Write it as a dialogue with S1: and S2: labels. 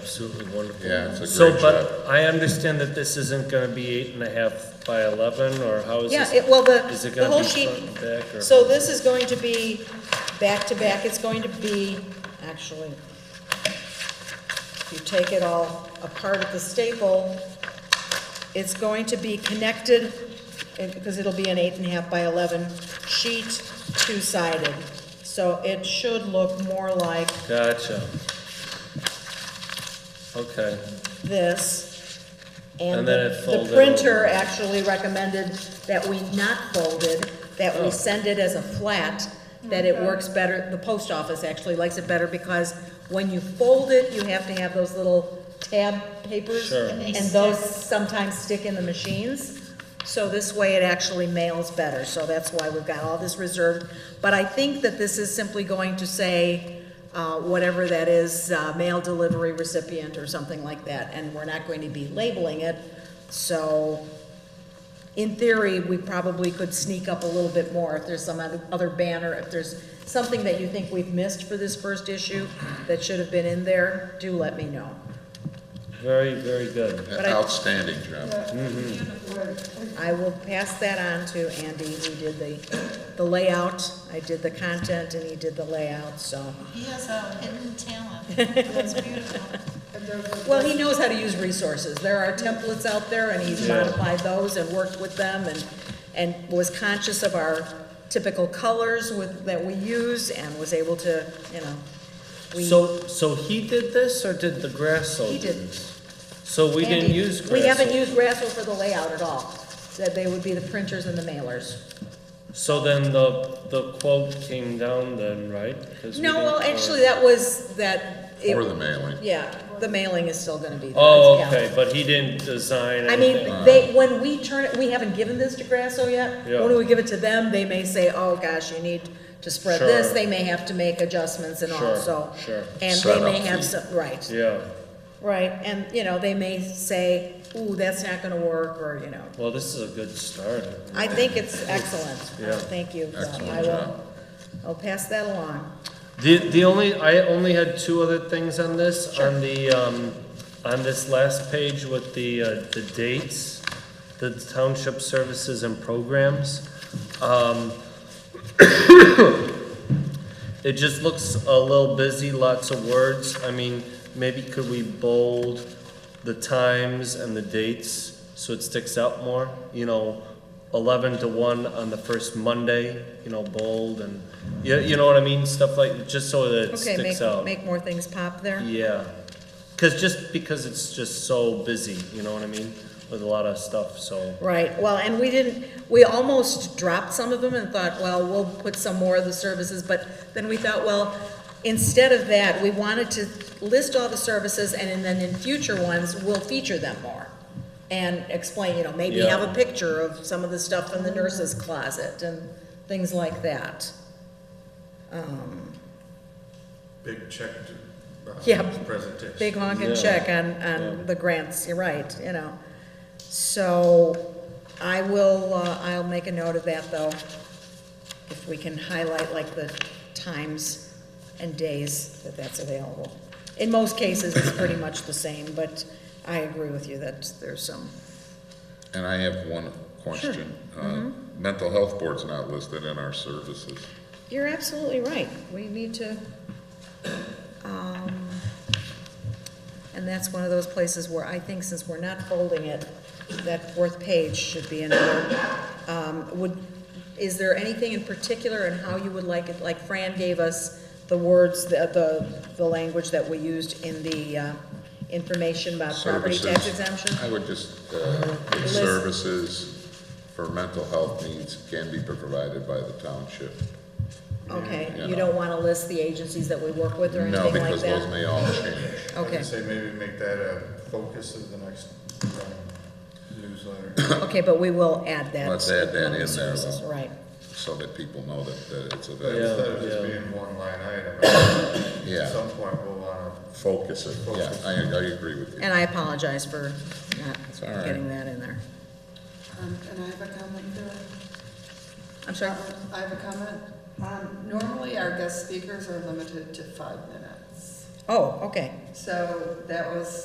S1: Absolutely wonderful.
S2: Yeah, it's a
S1: So,
S2: great job.
S1: but I understand that this isn't gonna be eight and a half by eleven, or how is
S3: Yeah,
S1: this?
S3: it, well, the,
S1: Is it
S3: the
S1: gonna
S3: whole
S1: be
S3: sheet,
S1: front and back, or?
S3: so this is going to be back to back, it's going to be, actually, if you take it all apart at the staple, it's going to be connected, and- because it'll be an eight and a half by eleven sheet, two-sided. So it should look more like
S1: Gotcha. Okay,
S3: this.
S1: And
S3: And
S1: then
S3: the
S1: it
S3: the
S1: folded
S3: printer
S1: over.
S3: actually recommended that we not fold it, that
S1: Oh.
S3: we send it as a flat, that it works better, the post office actually likes it better because when you fold it, you have to have those little tab papers.
S1: Sure. And
S3: And those sometimes stick in the machines. So this way it actually mails better, so that's why we've got all this reserved. But I think that this is simply going to say, uh, whatever that is, uh, mail delivery recipient or something like that, and we're not going to be labeling it. So in theory, we probably could sneak up a little bit more if there's some other other banner, if there's something that you think we've missed for this first issue that should have been in there, do let me know.
S1: very, very good.
S3: But I-
S2: Outstanding job.
S3: I will pass that on to Andy, who did the, the layout. I did the content and he did the layout, so.
S4: He has a hidden talent. That's beautiful.
S3: Well, he knows how to use resources. There are templates out there and he's
S1: Yeah.
S3: modified those and worked with them and, and was conscious of our typical colors with, that we use and was able to, you know. we-
S1: So, so he did this, or did the Grasso?
S3: He
S1: do
S3: did.
S1: this? So we didn't
S3: Andy,
S1: use Grasso?
S3: We haven't used Grasso for the layout at all. That they would be the printers and the mailers.
S1: So then the, the quote came down then, right? 'Cause we
S3: No,
S1: didn't
S3: well,
S1: call it-
S3: actually, that was, that. it-
S2: Or the mailing.
S3: Yeah, the mailing is still gonna be there.
S1: Oh,
S3: yeah.
S1: okay, but he didn't design
S3: I mean,
S1: anything.
S3: they, when we turn, it, we haven't given this to Grasso yet.
S1: Yeah.
S3: When we give it to them, they may say, oh, gosh, you need to spread
S1: Sure.
S3: this. They may have to make adjustments and all,
S1: Sure,
S3: so.
S1: sure.
S3: And they
S2: Setup
S3: may have
S2: fee.
S3: some, right,
S1: Yeah,
S3: right. And, you know, they may say, ooh, that's not gonna work, or, you know.
S1: well, this is a good start.
S3: I think it's excellent.
S1: Yeah.
S3: Thank you. So
S2: Excellent
S3: I will-
S2: job.
S3: I'll pass that along.
S1: The, the only, I only had two other things on this, on the, um, on this last page with the, uh, the dates, the township services and programs. Um, It just looks a little busy, lots of words, I mean, maybe could we bold the times and the dates so it sticks out more? You know, eleven to one on the first Monday, you know, bold and, you, you know what I mean, stuff like, just so that it
S3: Okay, make,
S1: sticks out.
S3: make more things pop there.
S1: Yeah, cause just, because it's just so busy, you know what I mean, with a lot of stuff, so.
S3: Right, well, and we didn't, we almost dropped some of them and thought, well, we'll put some more of the services, but then we thought, well, instead of that, we wanted to list all the services and then in future ones, we'll feature them more. And explain, you know, maybe
S1: Yeah.
S3: have a picture of some of the stuff in the nurse's closet and things like that.
S5: big check to, uh,
S3: Yeah.
S5: presentation.
S3: Big honking
S1: Yeah.
S3: check on,
S1: Yeah.
S3: on the grants, you're right, you know. So I will, uh, I'll make a note of that though. If we can highlight like the times and days that that's available. In most cases, it's pretty much the same, but I agree with you that there's some,
S2: And I have one question. Uh,
S3: Mm-hmm.
S2: Mental health board's not listed in our services.
S3: you're absolutely right. We need to, um, and that's one of those places where I think since we're not folding it, that fourth page should be in there. Um, Would, is there anything in particular in how you would like it, like Fran gave us the words, the, the, the language that we used in the uh, information about property tax
S2: Services.
S3: exemption?
S2: I would just, uh, put
S3: List.
S2: services for mental health needs can be provided by the township.
S3: Okay,
S2: Yeah.
S3: you don't want to list the agencies that we work with or anything
S2: No,
S3: like that?
S2: because those may all change.
S5: I would
S3: Okay.
S5: say maybe make that a focus of the next um, newsletter.
S3: Okay, but we will add that.
S2: Let's add that in there,
S3: Services,
S2: though.
S3: Right,
S2: so that people know that, that it's
S1: Yeah.
S2: available.
S5: Instead of just being one line item, at
S2: Yeah.
S5: some point we'll wanna,
S2: Focus it, yeah, I, I agree with you.
S3: and I apologize for
S2: all
S3: not
S2: right.
S3: getting that in there.
S6: Um, and I have a comment there.
S3: I'm sorry,
S6: Um, I have a comment. Um, normally our guest speakers are limited to five minutes.
S3: Oh, okay.
S6: So that was